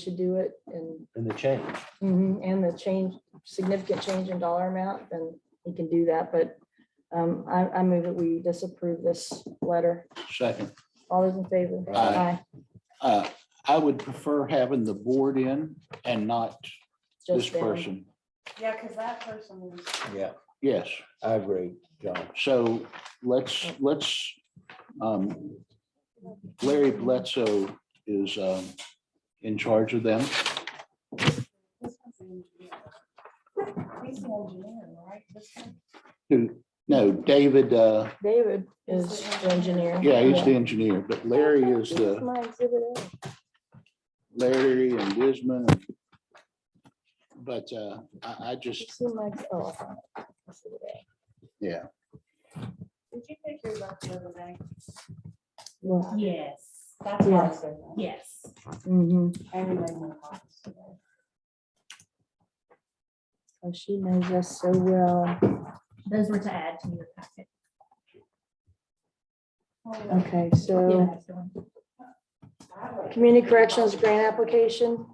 should do it and, and the change. mhm, and the change, significant change in dollar amount, then we can do that, but um, I, I move that we disapprove this letter. Second. All those in favor? Aye. Uh, I would prefer having the board in and not this Just them. person. Yeah, because that person was, Yeah, Yes, I agree, John. so let's, let's, um, Larry Bledsoe is, um, in charge of them. this one's the engineer. He's the engineer, right? This one? Who, no, David, uh, David is the engineer. yeah, he's the engineer, but Larry is the, My exhibit A. Larry and Wisman. But, uh, I, I You just, see my- oh, I found it. Exhibit A. yeah, Did you take yours off the other day? Well, Yes. That's Yeah. what I said. Yes. mhm. Everybody in the office today. Oh, She knows us so well. Those were to add to your packet. Oh, Okay, so Yeah, so- I like- community corrections grant application.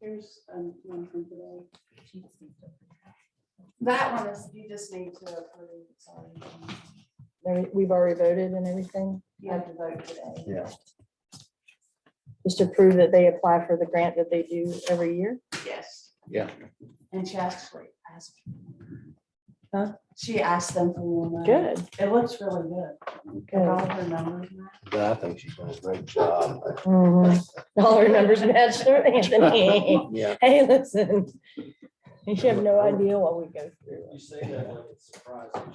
Here's um, one from today. That one is, you just need to approve. sorry. There- We've already voted and everything. You have to vote today. Yeah. Just to prove that they apply for the grant that they do every year. Yes. Yeah. And she actually asked. Huh? She asked them for more money. Good, It looks really good. With good. All her numbers. and that. But I think she's done a great job. Mhm. All our numbers match their Anthony. Yeah. Hey, listen. You have no idea what we go through. You say that like it's surprising.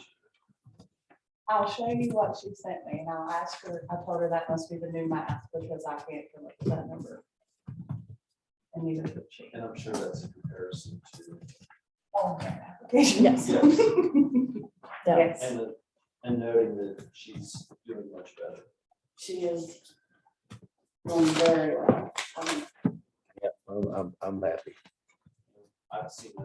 I'll show you what she sent me and I'll ask her, I told her that must be the new math because I can't come up with that number. And neither could she. Oh, And I'm sure that's a comparison to, All her applications. Yes. So, Yes, and, and noting that she's doing much better. she is. doing very well. Um, Yeah, I'm, I'm, I'm happy. I've seen a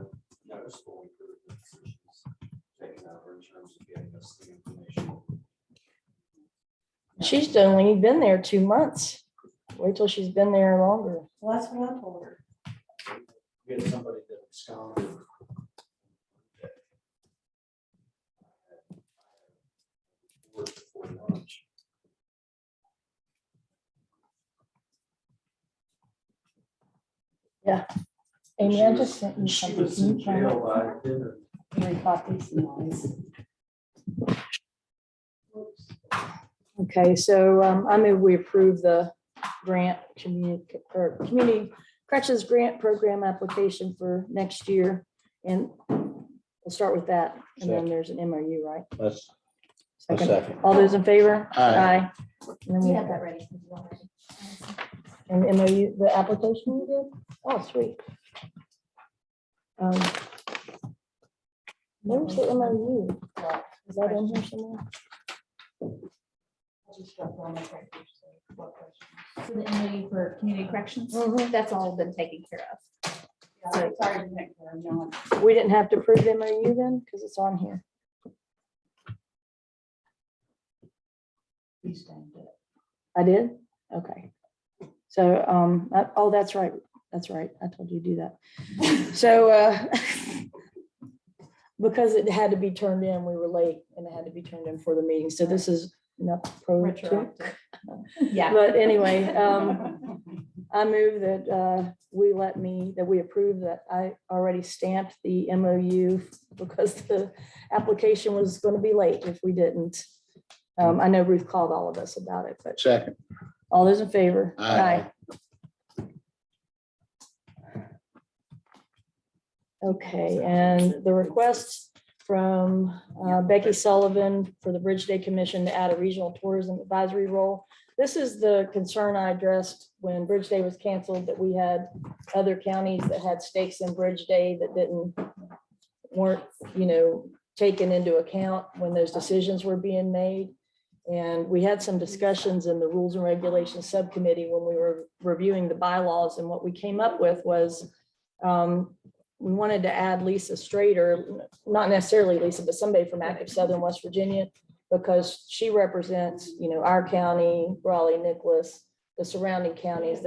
noticeable improvement since she's taken over in terms of getting us the information. She's only been there two months. Wait till she's been there longer. Well, that's what I told her. We had somebody that absconded. Worked before lunch. Amy, She I was- just sent you She was something. in You found it? jail by dinner. Three copies and all this. Okay, so um, I move we approve the grant community, or community corrections grant program application for next year. And we'll start with that. And then Second. there's an MOU, right? That's a Second. second. All those in favor? Aye. And then You we have have that ready. if you want it. an MOU, the application you did? Oh, sweet. Um, Where's the MOU? Is that in here somewhere? I just got one, I think, so, what question? So the MOU for community corrections, Mhm. Mm-hmm, that's all been taken care of. Yeah, I'm Sorry, to make her, no, We didn't have to approve the MOU then, because it's on here. please don't do it. I did? Okay. So, um, I- oh, that's right. That's right. I told you to do that. So, uh, because it had to be turned in, we were late and it had to be turned in for the meeting. So this is not pro. Retroactive. Yeah. But anyway, um, I move that, uh, we let me, that we approve that I already stamped the MOU because the application was going to be late if we didn't. Um, I know Ruth called all of us about it, but Second. all those in favor? Aye. Okay, and the request from uh, Becky Sullivan for the Bridge Day Commission to add a regional tourism advisory role. This is the concern I addressed when Bridge Day was canceled, that we had other counties that had stakes in Bridge Day that didn't, weren't, you know, taken into account when those decisions were being made. And we had some discussions in the Rules and Regulations Subcommittee when we were reviewing the bylaws, and what we came up with was um, we wanted to add Lisa Strader, not necessarily Lisa, but somebody from active Southern West Virginia, because she represents, you know, our county, Raleigh, Nicholas, the surrounding counties